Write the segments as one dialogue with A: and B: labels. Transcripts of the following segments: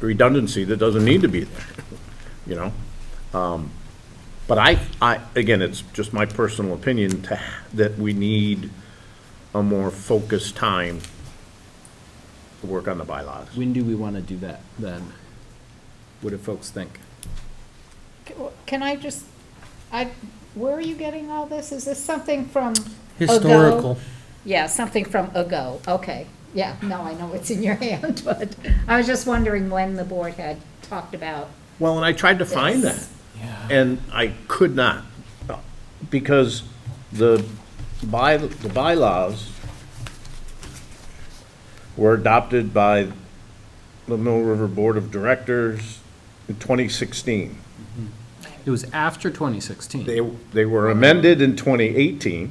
A: redundancy that doesn't need to be there, you know? Um, But I, I, again, it's just my personal opinion to, ha- that we need a more focused time to work on the bylaws.
B: When do we want to do that, then? What do folks think?
C: Can I just, I, where are you getting all this? Is this something from? ago?
D: Historical.
C: Yeah, something from ago, okay. Yeah, no, I know it's in your hand, but I was just wondering when the board had talked about.
A: Well, and I tried to find that,
C: Yes.
A: and I could not, because the by, the bylaws were adopted by the Mill River Board of Directors in 2016.
B: It was after 2016.
A: They, they were amended in 2018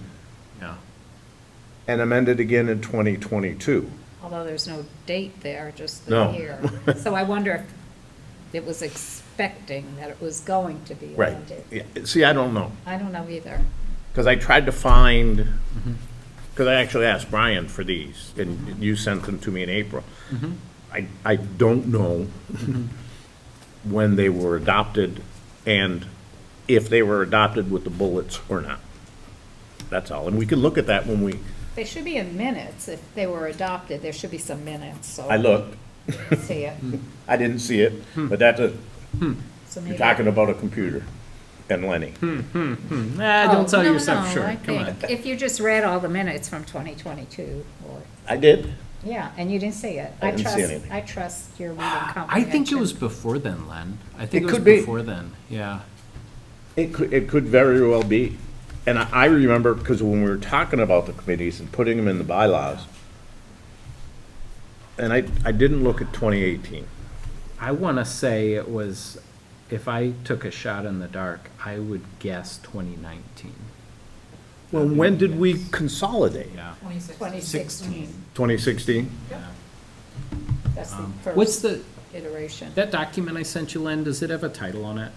B: Yeah.
A: and amended again in 2022.
C: Although there's no date there, just
A: No.
C: the year. So I wonder if it was expecting that it was going to be amended.
A: Yeah, See, I don't know.
C: I don't know either.
A: Because I tried to find, because I actually asked Brian for these, and you sent them to me in April. I, I don't know when they were adopted and if they were adopted with the bullets or not. That's all. And we can look at that when we,
C: They should be in minutes. If they were adopted, there should be some minutes, so.
A: I looked,
C: See it.
A: I didn't see it, but that's a,
C: So
A: you're
C: maybe-
A: talking about a computer and Lenny.
B: Nah, don't
C: Oh,
B: sell
C: no,
B: yourself
C: no, I
B: short, come on.
C: think If you just read all the minutes from 2022, or,
A: I did.
C: yeah, and you didn't see it.
A: I didn't see
C: trust-
A: anything.
C: I trust your reading
B: I
C: comprehension.
B: think it was before then, Len. I think
A: It
B: it
A: could
B: was
A: be.
B: before then, yeah.
A: It could, it could very well be. And I, I remember, because when we were talking about the committees and putting them in the bylaws, and I, I didn't look at twenty eighteen.
B: I want to say it was, if I took a shot in the dark, I would guess 2019,
A: Well, when did we consolidate?
B: yeah.
C: 2016,
A: Twenty sixteen?
C: that's the
B: Um, What's the,
C: first iteration.
B: that document I sent you, Len, does it have a title on it?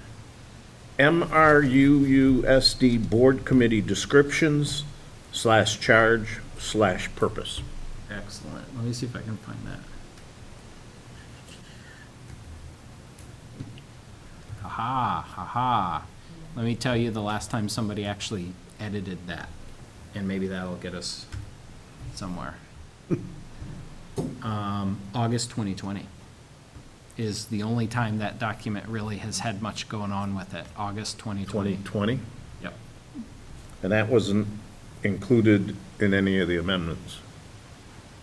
A: MRUUSD Board Committee Descriptions slash Charge slash Purpose.
B: Excellent. Let me see if I can find that. Haha, haha. Let me tell you the last time somebody actually edited that, and maybe that'll get us somewhere. Um, August 2020 is the only time that document really has had much going on with it, August 2020.
A: Twenty twenty?
B: Yep.
A: And that wasn't included in any of the amendments.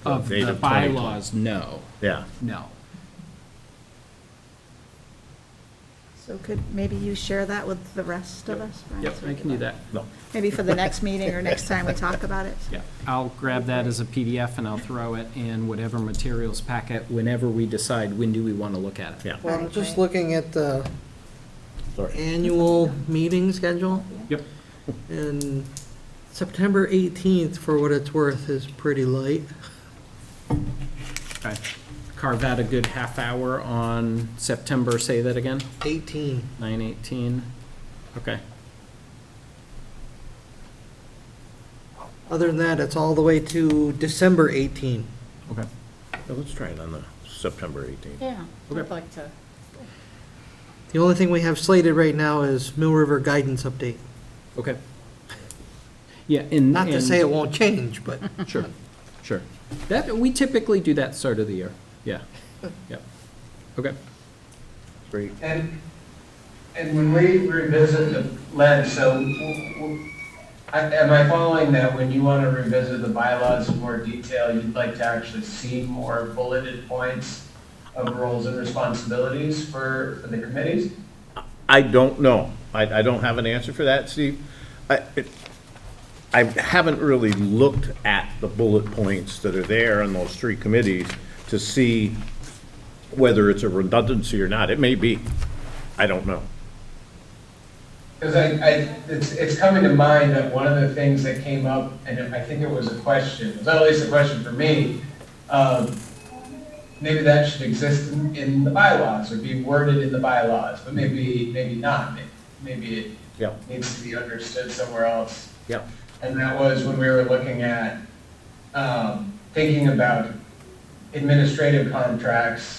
B: Of
A: Date
B: the
A: of 2020.
B: bylaws, no,
A: Yeah.
B: no.
D: So could, maybe you share that with the rest of us? Brian,
B: Yep,
D: so we
B: I can do that.
A: No.
D: Maybe for the next meeting or next time we talk about it?
B: Yeah, I'll grab that as a PDF and I'll throw it in whatever materials packet whenever we decide when do we want to look at it.
A: Yeah.
E: Well, I'm just looking at the
A: Sorry.
E: annual meeting schedule,
B: Yep.
E: and September 18th, for what it's worth, is pretty light.
B: Okay. Carve out a good half hour on September, say that again,
E: 18.
B: nine eighteen. Okay,
E: Other than that, it's all the way to December 18.
B: okay.
A: Yeah, Let's try it on the September eighteenth.
C: Yeah, I'd
B: Okay.
C: like to,
E: The only thing we have slated right now is Mill River Guidance Update.
B: Okay. Yeah, and.
E: Not to
B: and-
E: say it won't change, but
B: Sure, sure. That, we typically do that start of the year. Yeah, yep. Okay,
A: Great.
F: And, and when we revisit the lead, so w- w- I- am I following that when you want to revisit the bylaws in more detail, you'd like to actually see more bulleted points of roles and responsibilities for, for the committees?
A: I don't know. I, I don't have an answer for that, Steve. I, it, I haven't really looked at the bullet points that are there on those three committees to see whether it's a redundancy or not. It may be. I don't know.
F: Because I, I, it's, it's coming to mind that one of the things that came up, and I think it was a question, it was at least a question for me, um, maybe that should exist in, in the bylaws, or be worded in the bylaws, but maybe, maybe not, May- maybe it
A: Yeah,
F: needs to be understood somewhere else.
A: yeah.
F: And that was when we were looking at, um, thinking about administrative contracts